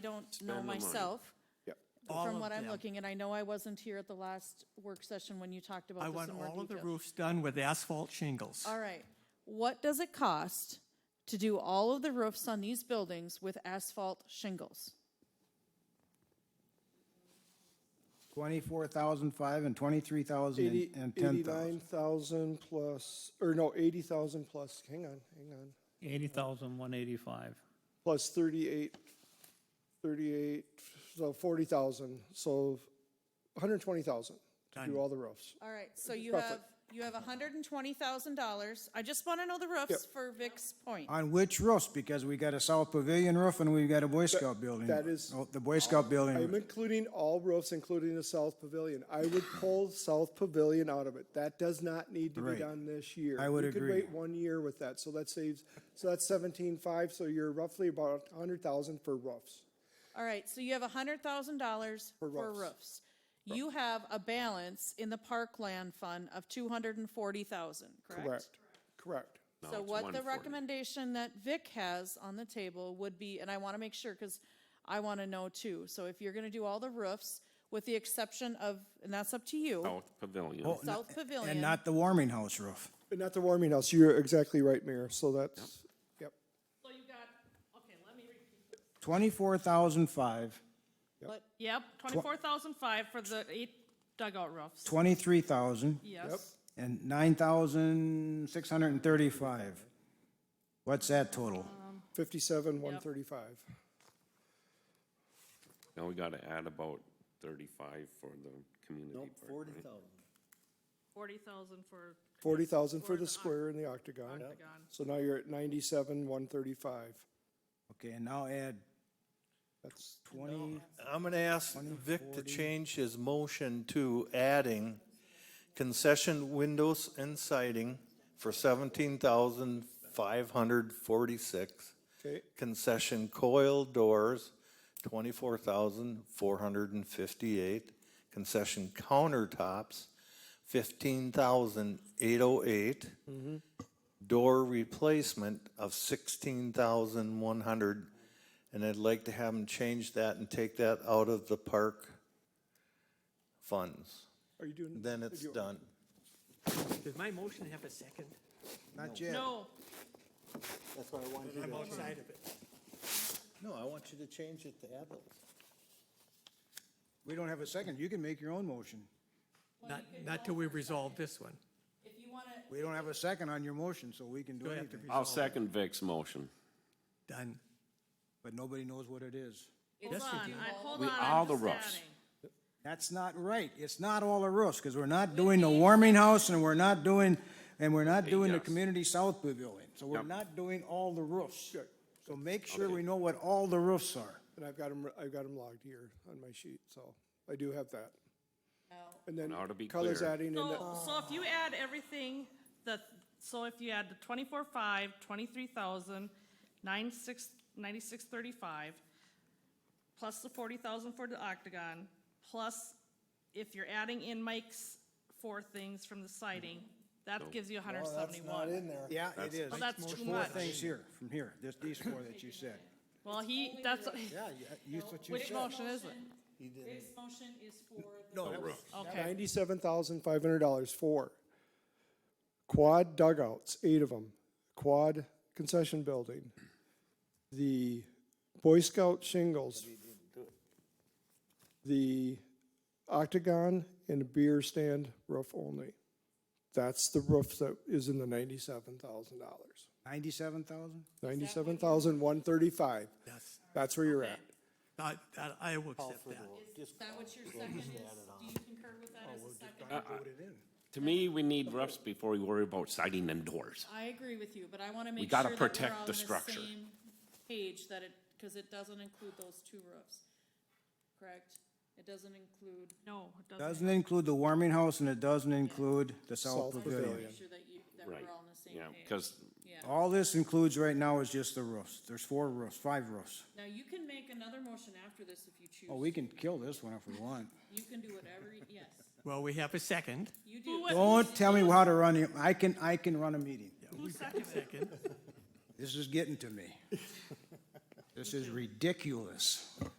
I don't know the money. myself, Yep. All from of what I'm them. looking, and I know I wasn't here at the last work session when you talked I about this want in more all of the detail. roofs done with asphalt shingles. All right, what does it cost to do all of the roofs on these buildings with asphalt shingles? Twenty-four thousand five and twenty-three thousand Eighty- and ten thousand. 89,000 plus, or no, 80,000 plus, hang on, hang on, Eighty thousand, one eighty-five. plus 38, 38, so 40,000, so 120,000 to Done. do all the roofs. All right, so you Roughly. have, you have hundred and twenty thousand dollars. I just want to know the roofs for Vic's point. On which roofs? Because we got a South Pavilion roof and we've got a Boy Scout building. that is- Oh, The Boy Scout I'm building. including all roofs, including the South Pavilion. I would pull South Pavilion out of it. That does not need to be Right. done this year. I would You agree. could wait one year with that, so that saves, so that's 17.5, so you're roughly about 100,000 for roofs. All right, so you have hundred thousand dollars for roofs. roofs. You have a balance in the parkland fund of two hundred and forty thousand, correct? Correct. No, So it's what the 140. recommendation that Vic has on the table would be, and I want to make sure, because I want to know too. So if you're going to do all the roofs, with the exception of, and that's up to you, South Pavilion. South Pavilion. And not the warming house roof. And Not the warming house, you're exactly right, Mayor, so that's, yep. So you got, okay, let me repeat. Twenty-four thousand five, But Yep, twenty-four thousand five for the eight dugout roofs. twenty-three thousand, Yes. and nine thousand six hundred and thirty-five. What's that total? 57, 135. Now we gotta add about thirty-five for the community park, right? Forty thousand for 40,000 for the square and the octagon. octagon. So now you're at 97, 135. Okay, and now add That's, twenty, I'm going to ask Vic to change his motion to adding concession windows and siding for seventeen thousand five hundred forty-six. okay, Concession coil doors, twenty-four thousand four hundred and fifty-eight. Concession countertops, fifteen thousand eight oh eight. Door replacement of sixteen thousand one hundred. And I'd like to have them change that and take that out of the park funds. are you doing? Then it's done. Does my motion have a second? not yet. No, I'm outside of it. No, I want you to change it to add those. We don't have a second. You can make your own motion. Not, not till we resolve this one. if you want to, We don't have a second on your motion, so we can do Do I have to anything. resolve? I'll second Vic's motion. Done. But nobody knows what it is. hold on, I, hold We- on, all I'm the just roofs. adding. That's not right. It's not all the roofs, because we're not doing the warming house, and we're not doing, and we're not doing the yes. community south pavilion. So we're Yep. not doing all the roofs. So make sure we know what all the roofs are. And I've got them, I've got 'em logged here on my sheet, so I do have that. And then Now to be colors clear. adding in the, So, so if you add everything, the, so if you add the twenty-four five, twenty-three thousand, nine six, ninety-six thirty-five, plus the forty thousand for the octagon, plus if you're adding in Mike's four things from the siding, that gives you hundred seventy-one. there. Yeah, it is. Well, that's too Four much. things here, from here, just these four that you said. Well, he, that's, Yeah, you- that's what you which said. motion is it? Vic's motion is for the No roof. Okay, $97,500 for quad dugouts, eight of them, quad concession building, the Boy Scout shingles, the octagon and a beer stand roof only. That's the roof that is in the $97,000. Ninety-seven thousand? $97,135. That's, That's where you're at. I, that- I will accept that. that what your second is? Do you concur with Oh, that as a second? To me, we need roofs before we worry about siding and doors. I agree with you, but I want to make sure gotta that we're protect on the the structure. same page that it, because it doesn't include those two roofs, correct? It doesn't include, no, it doesn't. Doesn't include the warming house, and it doesn't include the South south pavilion. pavilion. make sure that you, that Right. we're all on the same Yeah, page. because Yeah. All this includes right now is just the roofs. There's four roofs, five roofs. Now, you can make another motion after this if you Oh, we choose. can kill this one if we want. You can do whatever, y- yes, Well, we have a second. you do. Who wa- Don't tell me how to run it. I can, I can run a meeting. Who seconded it? Second. This is getting to me. This is ridiculous.